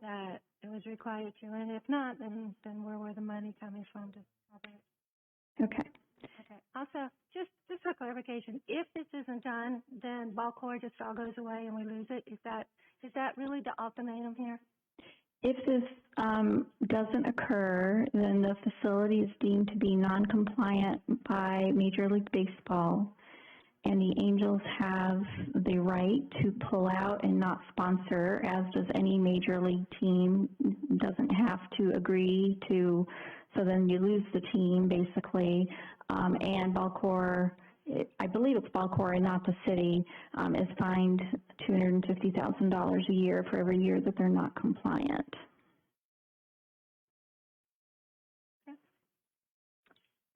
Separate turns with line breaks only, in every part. that it was required to, and if not, then, then where were the money coming from to cover it?
Okay.
Okay, also, just, just for clarification, if this isn't done, then ball core just all goes away and we lose it, is that, is that really the ultimatum here?
If this um, doesn't occur, then the facility is deemed to be non-compliant by Major League Baseball, and the Angels have the right to pull out and not sponsor, as does any major league team. Doesn't have to agree to, so then you lose the team basically. Um, and Balcor, I believe it's Balcor and not the city, um, is fined $250,000 a year for every year that they're not compliant.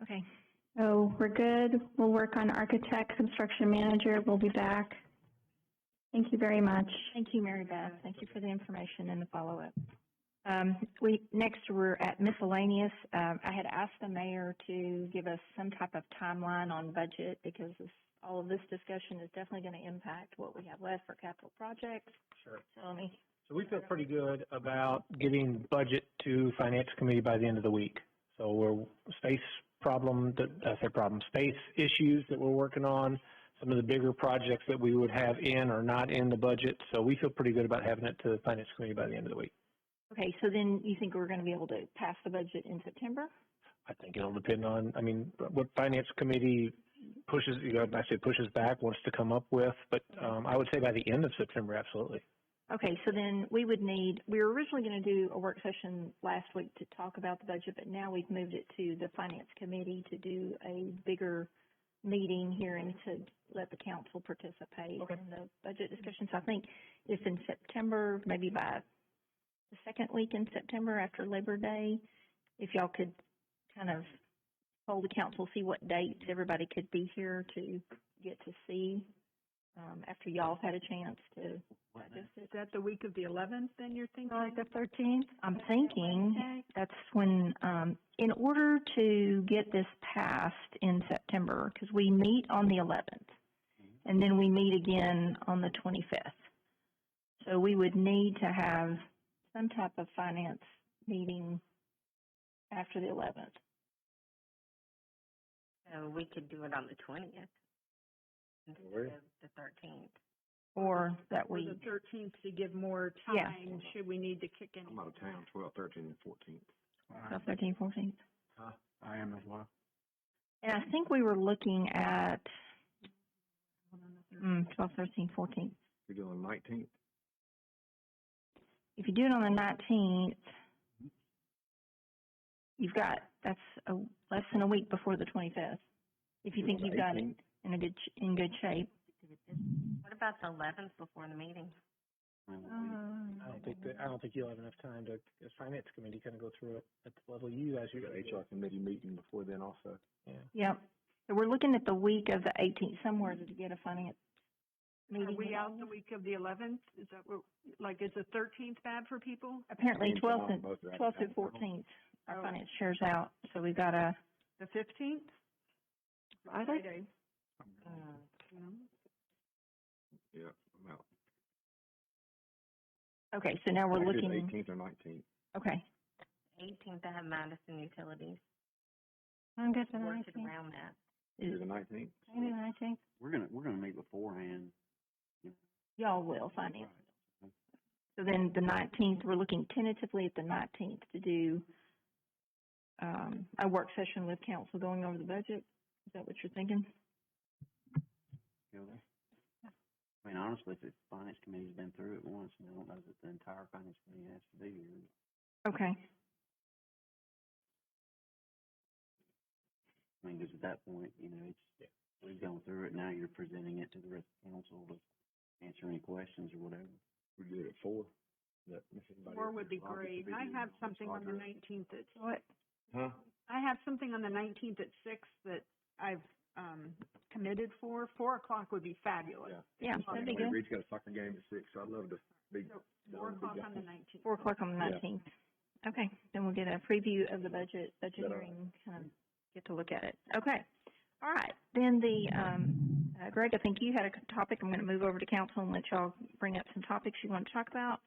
Okay.
So we're good. We'll work on architect, construction manager. We'll be back. Thank you very much.
Thank you, Mary Beth. Thank you for the information and the follow-up. Um, we, next we're at miscellaneous. Um, I had asked the mayor to give us some type of timeline on budget because this, all of this discussion is definitely going to impact what we have left for capital projects.
Sure.
So let me,
So we feel pretty good about getting budget to finance committee by the end of the week. So we're space problem, that, I say problem, space issues that we're working on, some of the bigger projects that we would have in or not in the budget. So we feel pretty good about having it to the finance committee by the end of the week.
okay, so then you think we're going to be able to pass the budget in September?
I think it'll depend on, I mean, what finance committee pushes, you know, I say pushes back, wants to come up with, but, um, I would say by the end of September, absolutely.
Okay, so then we would need, we were originally going to do a work session last week to talk about the budget, but now we've moved it to the finance committee to do a bigger meeting here and to let the council participate
Okay.
in the budget discussion. So I think if in September, maybe by the second week in September after Labor Day, if y'all could kind of hold the council, see what dates everybody could be here to get to see, um, after y'all have had a chance to
Is is that the week of the eleventh then you're thinking?
Uh,
Like the thirteenth?
I'm thinking that's when, um, in order to get this passed in September, because we meet on the eleventh, and then we meet again on the twenty-fifth. So we would need to have some type of finance meeting after the eleventh.
So we could do it on the twentieth instead of the thirteenth.
Or that
Or
week,
the thirteenth to give more
Yeah.
time, should we need to kick in?
I'm out of town, twelve, thirteen, and fourteen.
so thirteen, fourteen.
Uh, I am as well.
And I think we were looking at, mm, twelve, thirteen, fourteen.
You're doing nineteen.
if you do it on the nineteenth, you've got, that's a, less than a week before the twenty-fifth. If you think you've got it in a good, sh- in good shape.
What about the eleventh before the meeting?
Uh,
I don't think that, I don't think you'll have enough time to, as finance committee, kind of go through it at the level you guys are
You got
gonna
HR committee meeting before then also.
Yeah.
Yep. So we're looking at the week of the eighteenth, somewhere to get a finance meeting.
Are we out the week of the eleventh? Is that what, like, is the thirteenth bad for people?
Apparently
Me and
twelfth
John
and,
both are out of
twelfth and
town.
fourteenth, our
Oh.
finance chair's out, so we've got a,
The fifteenth?
Are they?
Yeah, I'm out.
okay, so now we're looking,
Eighteenth or nineteenth.
okay.
Eighteenth, I have Madison Utilities.
I'm good for the
Work it
nineteenth,
around that.
You're the nineteenth?
maybe the nineteenth.
We're gonna, we're gonna meet beforehand.
Y'all will finance. So then the nineteenth, we're looking tentatively at the nineteenth to do, um, a work session with council going over the budget. Is that what you're thinking?
You know, that's- I mean, honestly, if the finance committee's been through it once, and I don't know that the entire finance committee has to be here.
Okay.
I mean, because at that point, you know, it's, we've gone through it, now you're presenting it to the rest of council to answer any questions or whatever.
We do it at four. That- if anybody
Four
else
would
is
be
involved, it
great.
could
I
be
have
the
something on the
Audra.
nineteenth at,
What,
Huh?
I have something on the nineteenth at six that I've, um, committed for. Four o'clock would be fabulous.
Yeah.
Yeah,
I
that'd be
mean,
good.
Reed's got a soccer game at six, so I'd love to be.
So, Four o'clock on the nineteenth.
Four o'clock on the
Yeah.
nineteenth. Okay, then we'll get a preview of the budget, budget
Better.
hearing, kind of get to look at it. Okay. All right, then the, um, uh, Greg, I think you had a topic. I'm gonna move over to council and let y'all bring up some topics you want to talk about.